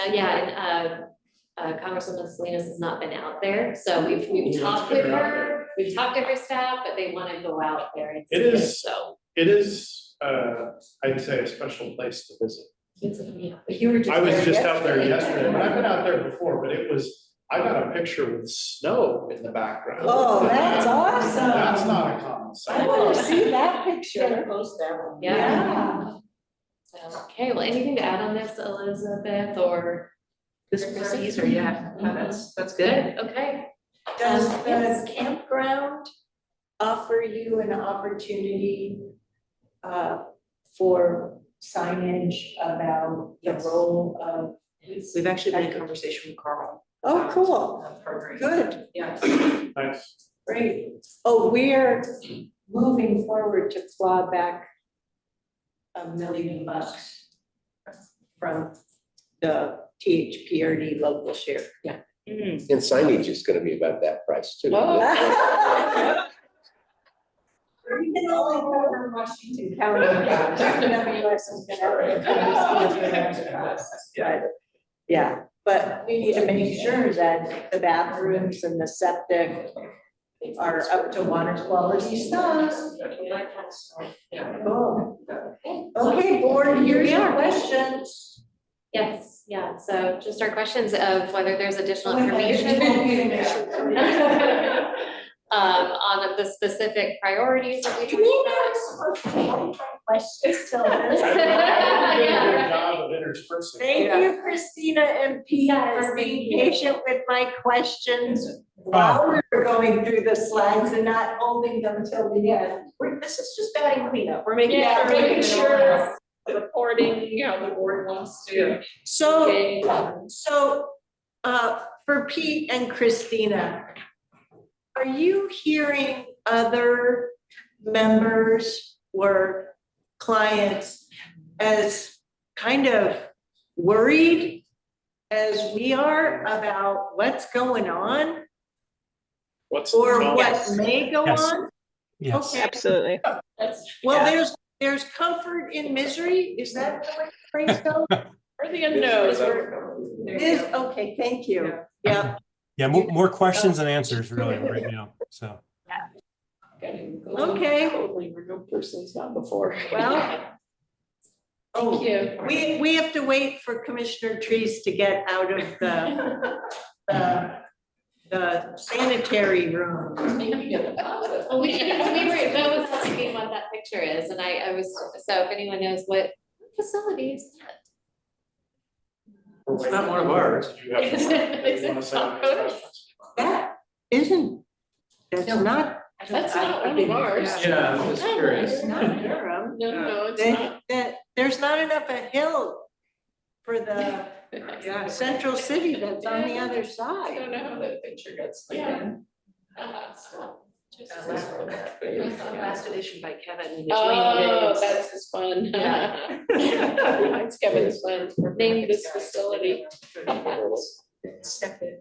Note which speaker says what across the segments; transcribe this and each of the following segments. Speaker 1: Uh, yeah, and, uh, uh, Congresswoman Salinas has not been out there, so
Speaker 2: Oh,
Speaker 1: we've, we've talked with her, we've talked to her staff, but they wanna go out there and see
Speaker 2: It
Speaker 1: it,
Speaker 2: is-
Speaker 1: so.
Speaker 2: It is, uh, I'd say a special place to visit.
Speaker 1: It's, yeah, but you were just
Speaker 2: I was just out there
Speaker 1: yesterday.
Speaker 2: yesterday, and I've been out there before, but it was, I got a picture with snow in the background.
Speaker 3: Oh, that's awesome.
Speaker 2: That's not a common
Speaker 3: I
Speaker 2: sight.
Speaker 3: want to see that picture.
Speaker 4: post that one.
Speaker 1: Yeah, so, okay, well, anything to add on this, Elizabeth, or?
Speaker 4: This was easier, yeah, No, that's, that's good.
Speaker 1: Good, okay.
Speaker 3: Does
Speaker 1: Um, yes.
Speaker 3: the campground offer you an opportunity uh, for signage about the
Speaker 4: Yes.
Speaker 3: role of?
Speaker 4: We've actually been in conversation with Carl. Um,
Speaker 3: Oh, cool,
Speaker 4: about that Program.
Speaker 3: good,
Speaker 4: Yes.
Speaker 2: Nice.
Speaker 3: great. Oh, we're moving forward to claw back a million bucks from the THPRD local share.
Speaker 5: And signage is gonna be about that price too.
Speaker 3: We can only cover Washington County. WS is gonna- But, Yeah, but we need to make sure that the bathrooms and the septic are up to water quality standards. Cool. Okay, board, here's your questions.
Speaker 1: Yes, yeah, so just our questions of whether there's additional
Speaker 3: Wait, wait,
Speaker 1: information.
Speaker 3: it won't be an issue.
Speaker 1: Um, on the specific priorities that we.
Speaker 3: Do we not supposed to have questions till this?
Speaker 2: I've been- I've been doing a
Speaker 1: Yeah.
Speaker 2: good job of interspersing.
Speaker 3: Thank
Speaker 4: Yeah.
Speaker 3: you, Christina and Pete,
Speaker 1: Yes,
Speaker 3: for
Speaker 1: thank
Speaker 3: being
Speaker 1: you.
Speaker 3: patient with my questions while we were going through the slides and not holding them till the end. We're, this is just batting cleanup, we're making
Speaker 6: Yeah,
Speaker 3: sure.
Speaker 6: making sure the reporting, you know, the board wants to.
Speaker 3: So,
Speaker 6: engage.
Speaker 3: so, uh, for Pete and Christina, are you hearing other members or clients as kind of worried as we are about what's going on
Speaker 2: What's the
Speaker 3: or
Speaker 2: problem?
Speaker 3: what may go
Speaker 7: Yes.
Speaker 3: on?
Speaker 7: Yes.
Speaker 3: Okay,
Speaker 8: Absolutely.
Speaker 6: That's-
Speaker 3: well, there's, there's comfort in misery, is that the way the phrase goes?
Speaker 6: Or the unknowns, or
Speaker 3: It is, okay, thank you, yeah,
Speaker 7: Yeah, more, more questions than answers really right now, so.
Speaker 3: Okay.
Speaker 6: Totally, we're no persons not before. Oh.
Speaker 3: well.
Speaker 6: Thank you.
Speaker 3: We, we have to wait for Commissioner Trees to get out of the, the- the sanitary room.
Speaker 1: Well, we, yes, we were, that was asking me what that picture is, and I, I was, so if anyone knows what facility is
Speaker 2: It's not one of ours. You have to- you wanna say any questions?
Speaker 3: That isn't, that's not,
Speaker 1: that? That's not one of ours.
Speaker 2: Yeah, I'm just
Speaker 1: No,
Speaker 2: curious.
Speaker 3: it's not Durham.
Speaker 6: No, no, Oh, it's not.
Speaker 3: That, that, there's not enough a hill for the central city that's on the other
Speaker 6: I
Speaker 3: side.
Speaker 6: don't know how that picture gets taken. Uh, so, just-
Speaker 4: Last edition by Kevin.
Speaker 6: Oh, that's his fun.
Speaker 1: Yeah.
Speaker 6: It's Kevin's fun.
Speaker 1: Name
Speaker 6: this facility.
Speaker 4: Step it.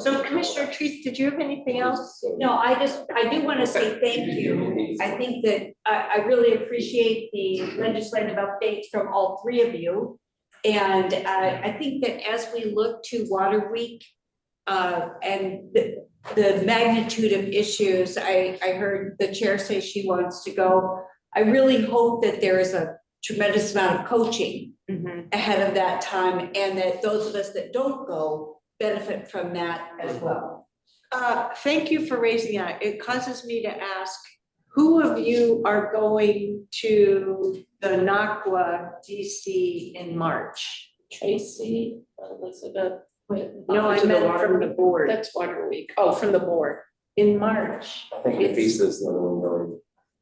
Speaker 3: So Commissioner Trees, did you have anything else?
Speaker 9: No, I just, I do want to say thank you. I think that I, I really appreciate the legislative updates from all three of you. And I, I think that as we look to Water Week, uh, and the, the magnitude of issues, I, I heard the chair say she wants to go. I really hope that there is a tremendous amount of coaching ahead of that time and that those of us that don't go benefit from that as well.
Speaker 3: Uh, thank you for raising that. It causes me to ask, who of you are going to the NACWA DC in March?
Speaker 6: Tracy, Elizabeth. uh,
Speaker 3: No, I
Speaker 4: To the
Speaker 3: meant
Speaker 4: water-
Speaker 3: from the board,
Speaker 6: That's Water Week. Oh, from the board.
Speaker 3: in March.
Speaker 5: I think the piece is not only going,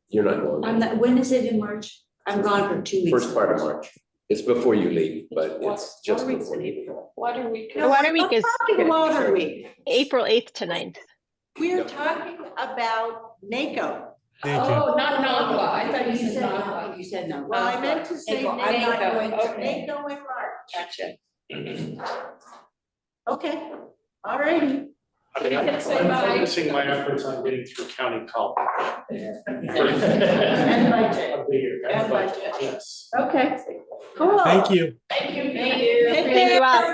Speaker 5: you're not
Speaker 9: I'm
Speaker 5: going,
Speaker 9: not, when is it in March? I'm gone for two weeks.
Speaker 5: first part of March. It's before you leave, but it's just.
Speaker 6: Water Week's
Speaker 5: before
Speaker 6: in
Speaker 5: you leave.
Speaker 6: April. Water Week.
Speaker 8: The water week is
Speaker 3: Talking Water Week,
Speaker 8: April 8th to 9th.
Speaker 3: we're
Speaker 5: Yep.
Speaker 3: talking about NACO.
Speaker 7: Thank you.
Speaker 6: Oh, not NACWA. I thought you
Speaker 9: You
Speaker 6: said
Speaker 9: said
Speaker 6: NACWA.
Speaker 9: no, you said no.
Speaker 3: Well, I meant to say
Speaker 9: April, I'm not
Speaker 3: NACO,
Speaker 9: going
Speaker 3: NACO
Speaker 9: to-
Speaker 3: in March.
Speaker 6: Gotcha.
Speaker 3: Okay, all righty.
Speaker 2: I mean,
Speaker 6: You can say
Speaker 2: I'm
Speaker 6: bye.
Speaker 2: focusing my efforts on getting through county college.
Speaker 3: And budget.
Speaker 2: Of the year,
Speaker 3: And
Speaker 2: and
Speaker 3: budget.
Speaker 2: budget, yes.
Speaker 3: Okay, cool.
Speaker 7: Thank you.
Speaker 6: Thank you,
Speaker 3: Thank you.
Speaker 8: Thank you all.